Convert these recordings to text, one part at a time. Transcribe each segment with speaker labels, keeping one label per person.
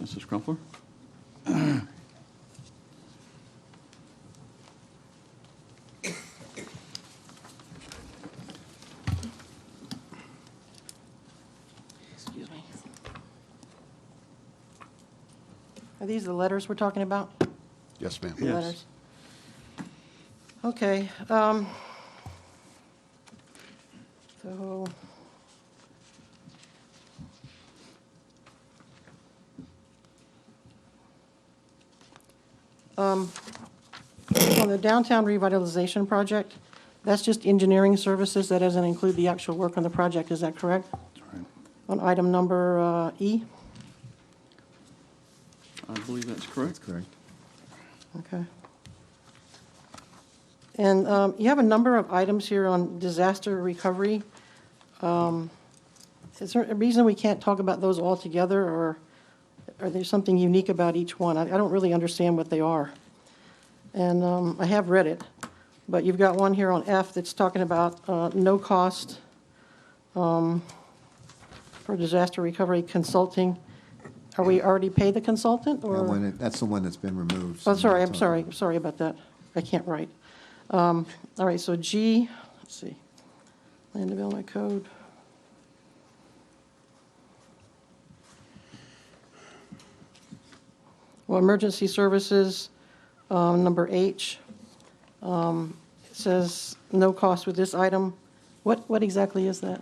Speaker 1: Mrs. Crumpler?
Speaker 2: Excuse me. Are these the letters we're talking about?
Speaker 3: Yes, ma'am.
Speaker 2: The
Speaker 1: Yes.
Speaker 2: letters? Okay, um, so. Um, on the downtown revitalization project, that's just engineering services, that doesn't include the actual work on the project, is that correct? On item number uh, E?
Speaker 1: I believe that's correct.
Speaker 4: correct.
Speaker 2: Okay. And um, you have a number of items here on disaster recovery. Um, Is there a reason we can't talk about those all together, or are there something unique about each one? I I don't really understand what they are. And um, I have read it, but you've got one here on F that's talking about uh, no cost um, for disaster recovery consulting. Are we already paid the consultant, or?
Speaker 4: That one, it- that's the one that's been removed. so
Speaker 2: Oh, sorry,
Speaker 4: that's
Speaker 2: I'm
Speaker 4: all.
Speaker 2: sorry, I'm sorry about that. I can't write. Um, All right, so G, let's see, land development code. Well, emergency services, um, number H, um, it says no cost with this item. What, what exactly is that?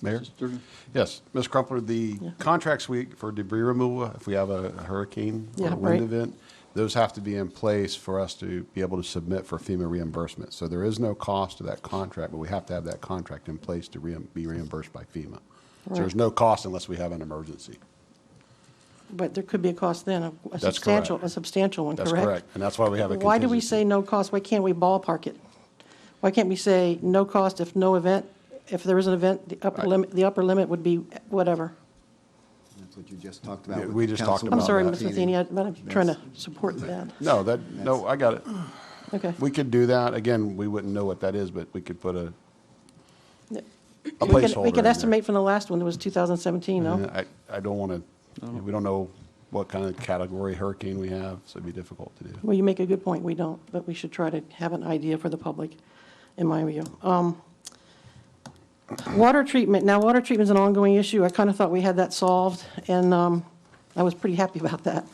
Speaker 3: Mayor?
Speaker 1: Mrs. Durgan?
Speaker 3: Yes, Ms. Crumpler, the
Speaker 2: Yeah.
Speaker 3: contracts we, for debris removal, if we have a hurricane or
Speaker 2: Yeah,
Speaker 3: a wind
Speaker 2: right.
Speaker 3: event, those have to be in place for us to be able to submit for FEMA reimbursement. So there is no cost to that contract, but we have to have that contract in place to reim- be reimbursed by FEMA. So there's
Speaker 2: Right.
Speaker 3: no cost unless we have an emergency.
Speaker 2: But there could be a cost then, a- a
Speaker 3: correct.
Speaker 2: substantial, a substantial one,
Speaker 3: That's
Speaker 2: correct?
Speaker 3: correct, and that's why we have a contingency.
Speaker 2: Why do we say no cost? Why can't we ballpark it? Why can't we say no cost if no event, if there is an event, the upper
Speaker 3: Right.
Speaker 2: limit, the upper limit would be whatever?
Speaker 4: That's what you just talked about.
Speaker 3: Yeah,
Speaker 4: with
Speaker 3: we
Speaker 4: the
Speaker 3: just talked
Speaker 4: council
Speaker 2: I'm
Speaker 3: about
Speaker 2: sorry,
Speaker 3: that.
Speaker 2: Ms. Matheny, I- but I'm trying to
Speaker 4: That's-
Speaker 2: support that.
Speaker 3: No, that, no, I got it.
Speaker 2: Okay.
Speaker 3: We could do that. Again, we wouldn't know what that is, but we could put a,
Speaker 2: Yeah.
Speaker 3: a
Speaker 2: We could-
Speaker 3: placeholder
Speaker 2: We
Speaker 3: in
Speaker 2: could
Speaker 3: there.
Speaker 2: estimate from the last one, that was 2017, no? Oh.
Speaker 3: Yeah, I, I don't want to, we don't know what kind of category hurricane we have, so it'd be difficult to do.
Speaker 2: Well, you make a good point, we don't, but we should try to have an idea for the public, in my view. Um, Water treatment, now, water treatment's an ongoing issue. I kind of thought we had that solved, and um, I was pretty happy about that.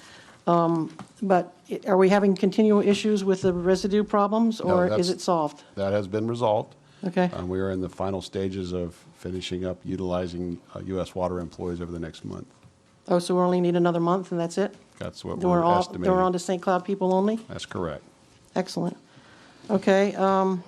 Speaker 2: Um, But it- are we having continual issues with the residue problems, or is
Speaker 3: that's-
Speaker 2: it solved?
Speaker 3: That has been resolved.
Speaker 2: Okay.
Speaker 3: Um, we are in the final stages of finishing up utilizing uh, U.S. water employees over the next month.
Speaker 2: Oh, so we only need another month, and that's it?
Speaker 3: That's what
Speaker 2: Then we're
Speaker 3: we're
Speaker 2: all, then we're on
Speaker 3: estimating.
Speaker 2: to St. Cloud people only?
Speaker 3: That's correct.
Speaker 2: Excellent. Okay, um,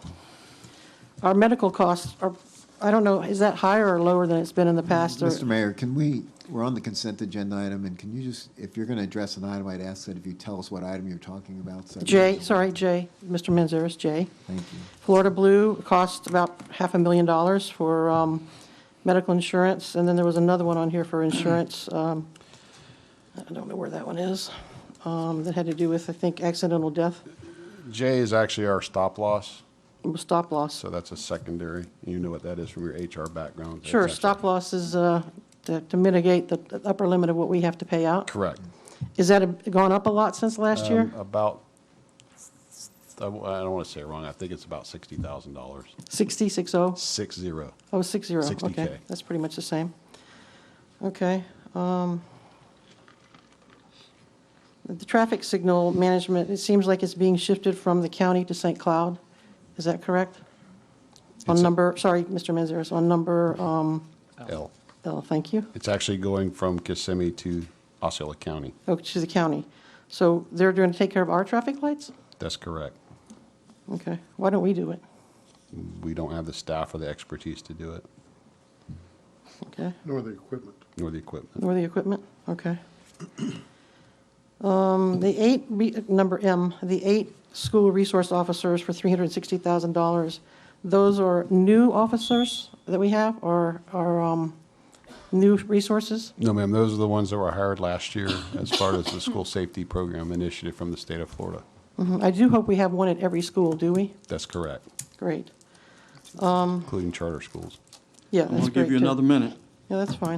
Speaker 2: our medical costs are, I don't know, is that higher or lower than it's been in the past? or-
Speaker 4: Mr. Mayor, can we, we're on the consent agenda item, and can you just, if you're going to address an item, I'd ask that if you tell us what item you're talking about. so-
Speaker 2: Jay, sorry, Jay, Mr. Manzares, Jay.
Speaker 4: Thank you.
Speaker 2: Florida Blue cost about half a million dollars for, um, medical insurance, and then there was another one on here for insurance, um, I don't know where that one is, um, that had to do with, I think, accidental death,
Speaker 3: J is actually our stop loss,
Speaker 2: stop loss.
Speaker 3: so that's a secondary. You know what that is from your HR background. That's
Speaker 2: Sure,
Speaker 3: actually-
Speaker 2: stop loss is, uh, to to mitigate the the upper limit of what we have to pay out.
Speaker 3: Correct.
Speaker 2: Is that a- gone up a lot since last year?
Speaker 3: Um, About, I w- I don't want to say it wrong, I think it's about $60,000.
Speaker 2: 60, 60?
Speaker 3: Six zero.
Speaker 2: Oh, 60,
Speaker 3: 60K.
Speaker 2: okay. That's pretty much the same. Okay. um, The traffic signal management, it seems like it's being shifted from the county to St. Cloud. Is that correct? On
Speaker 3: It's a-
Speaker 2: number, sorry, Mr. Manzares, on number, um,
Speaker 3: L.
Speaker 2: oh, thank you.
Speaker 3: It's actually going from Kissimmee to Osceola County.
Speaker 2: Oh, to the county. So they're going to take care of our traffic lights?
Speaker 3: That's correct.
Speaker 2: Okay. Why don't we do it?
Speaker 3: We don't have the staff or the expertise to do it,
Speaker 2: Okay.
Speaker 5: nor the equipment.
Speaker 3: nor the equipment.
Speaker 2: Or the equipment, okay. Um, The eight, re- number M, the eight school resource officers for $360,000, those are new officers that we have, or are um, new resources?
Speaker 3: No, ma'am, those are the ones that were hired last year as part of the school safety program initiative from the state of Florida.
Speaker 2: Mhm, I do hope we have one at every school, do we?
Speaker 3: That's correct,
Speaker 2: Great.
Speaker 3: including charter schools.
Speaker 2: Yeah,
Speaker 1: I'm going
Speaker 2: that's
Speaker 1: to
Speaker 2: great.
Speaker 1: give you
Speaker 2: too.
Speaker 1: another minute.
Speaker 2: Yeah, that's fine.